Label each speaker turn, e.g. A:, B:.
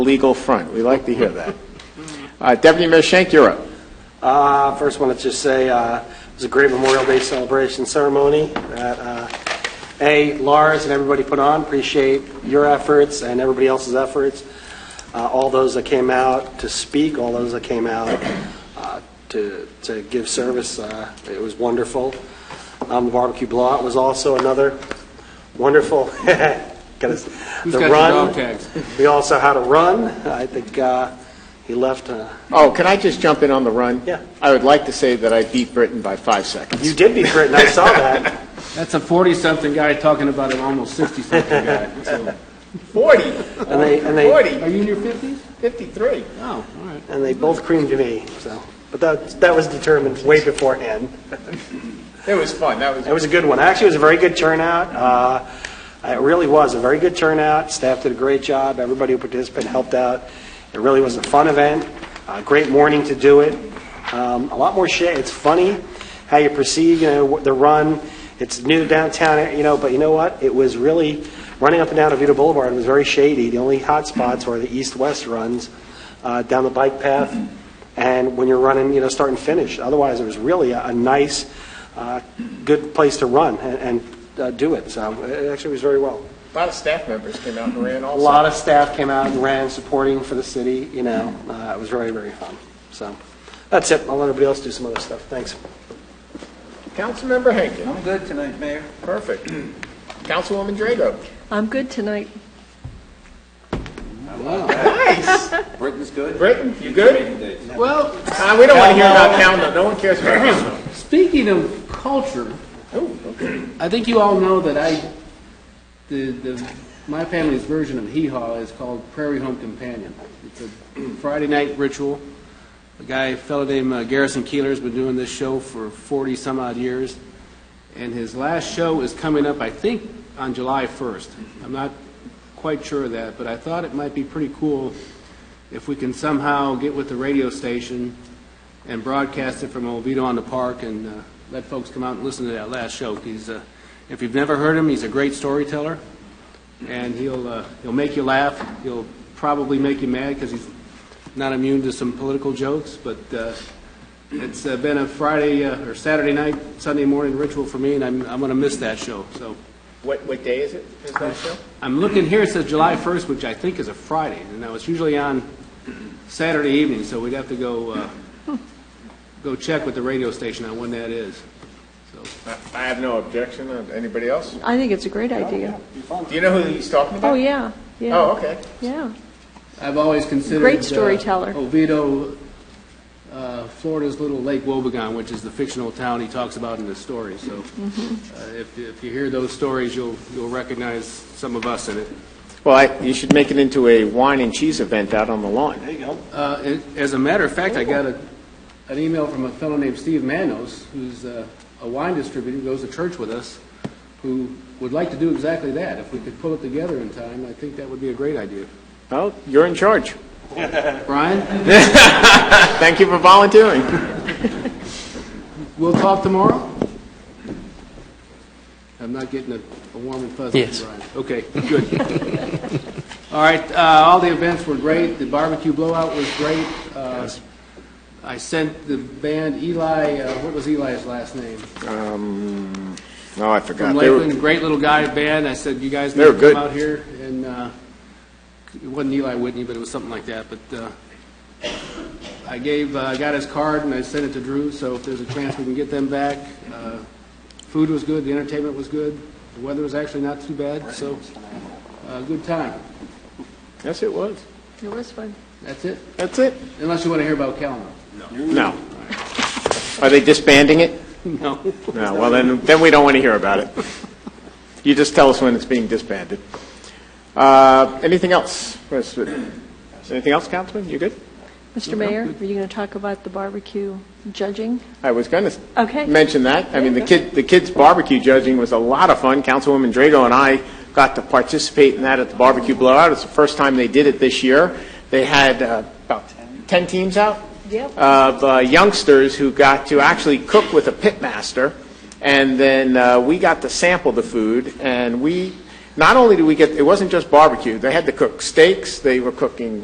A: legal front. We like to hear that. Uh, Deputy Mayor Schenk, you're up.
B: Uh, First, want to just say, uh, it was a great Memorial Day celebration ceremony that, uh, A, Lars and everybody put on, appreciate your efforts and everybody else's efforts, Uh, all those that came out to speak, all those that came out uh, to to give service, uh, it was wonderful. Um, The barbecue blowout was also another wonderful, got us, the
C: got the
B: run.
C: dog tags?
B: We also had a run, I think uh, he left, uh,
A: Oh, can I just jump in on the run?
B: Yeah.
A: I would like to say that I beat Britain by five seconds.
B: you did beat Britain, I saw that.
C: That's a 40-something guy talking about an almost 60-something guy. So,
A: 40,
B: And they, and they,
C: Are you in your 50s?
A: 53.
C: Oh, all right.
B: and they both creamed me, so. But that, that was determined way beforehand.
A: It was fun. That was
B: It was a good one. Actually, it was a very good turnout. Uh, It really was a very good turnout. Staff did a great job. Everybody who participated helped out. It really was a fun event, a great morning to do it. Um, A lot more shade. It's funny how you perceive, you know, the run. It's new to downtown, you know, but you know what? It was really, running up and down Avita Boulevard was very shady. The only hot spots were the east-west runs uh, down the bike path and when you're running, you know, start and finish. Otherwise, it was really a a nice, uh, good place to run and and, uh, do it. So it actually was very well.
A: a lot of staff members came out and ran
B: A lot of staff came out and ran, supporting for the city, you know. Uh, It was very, very fun. So that's it. I'll let everybody else do some other stuff. Thanks.
A: Councilmember Henkin,
D: I'm good tonight, Mayor.
A: perfect. Councilwoman Drago.
E: I'm good tonight.
A: Nice.
D: Britain's good.
A: Britain, you good?
C: Well,
A: Uh, We don't want to hear about Calno. No one cares about Calno.
C: speaking of culture, I think you all know that I, the, the, my family's version of hee haw is called Prairie Home Companion. It's a Friday night ritual. A guy, a fellow named uh, Garrison Keeler's been doing this show for 40 some odd years. And his last show is coming up, I think, on July 1st. I'm not quite sure of that, but I thought it might be pretty cool if we can somehow get with the radio station and broadcast it from Oviedo on the Park and uh, let folks come out and listen to that last show. He's, uh, if you've never heard him, he's a great storyteller, and he'll, uh, he'll make you laugh. He'll probably make you mad because he's not immune to some political jokes, but uh, it's uh, been a Friday uh, or Saturday night, Sunday morning ritual for me, and I'm, I'm going to miss that show. So
A: What, what day is it? Is that show?
C: I'm looking here, it says July 1st, which I think is a Friday. and Now, it's usually on Saturday evening, so we'd have to go, uh, go check with the radio station on when that is. So,
A: I- I have no objection. Uh, Anybody else?
E: I think it's a great idea.
A: Do you know who he's talking about?
E: Oh, yeah, yeah.
A: Oh, okay.
E: Yeah.
C: I've always considered.
E: Great
C: uh,
E: storyteller.
C: Oviedo, uh, Florida's little Lake Wobegon, which is the fictional town he talks about in the story. So
E: Mm-hmm.
C: uh, if if you hear those stories, you'll, you'll recognize some of us in it.
A: Well, I- you should make it into a wine and cheese event out on the lawn.
B: There you go.
C: Uh, it- As a matter of fact, I got a, an email from a fellow named Steve Manos, who's uh, a wine distributor, who goes to church with us, who would like to do exactly that. If we could pull it together in time, I think that would be a great idea.
A: Well, you're in charge.
C: Brian,
A: Thank you for volunteering.
C: we'll talk tomorrow? I'm not getting a a warm and fuzzy,
F: Yes.
C: Brian. Okay, good. All right, uh, all the events were great. The barbecue blowout was great. Uh, I sent the band Eli, uh, what was Eli's last name?
A: Um, oh, I forgot.
C: from
A: They were-
C: Lakeland, great little guy band. I said, you guys
A: They
C: need
A: were
C: to
A: good.
C: come out here. And uh, it wasn't Eli Whitney, but it was something like that. But uh, I gave, uh, I got his card and I sent it to Drew. So if there's a chance we can get them back, uh, food was good, the entertainment was good, the weather was actually not too bad. So uh, good time.
A: Yes, it was.
E: It was fun.
C: That's it.
A: That's it?
C: Unless you want to hear about Calno.
A: No. Are they disbanding it?
C: No.
A: No, well, then, then we don't want to hear about it. You just tell us when it's being disbanded. Uh, Anything else? Where's the- Anything else, Councilman? You good?
E: Mr. Mayor, are you going to talk about the barbecue judging?
A: I was going
E: Okay.
A: to mention that. I mean, the kid, the kids barbecue judging was a lot of fun. Councilwoman Drago and I got to participate in that at the barbecue blowout. It's the first time they did it this year. They had uh, about 10 teams out?
E: Yep.
A: Of uh, youngsters who got to actually cook with a pit master. And then uh, we got to sample the food, and we, not only did we get, it wasn't just barbecue. They had to cook steaks, they were cooking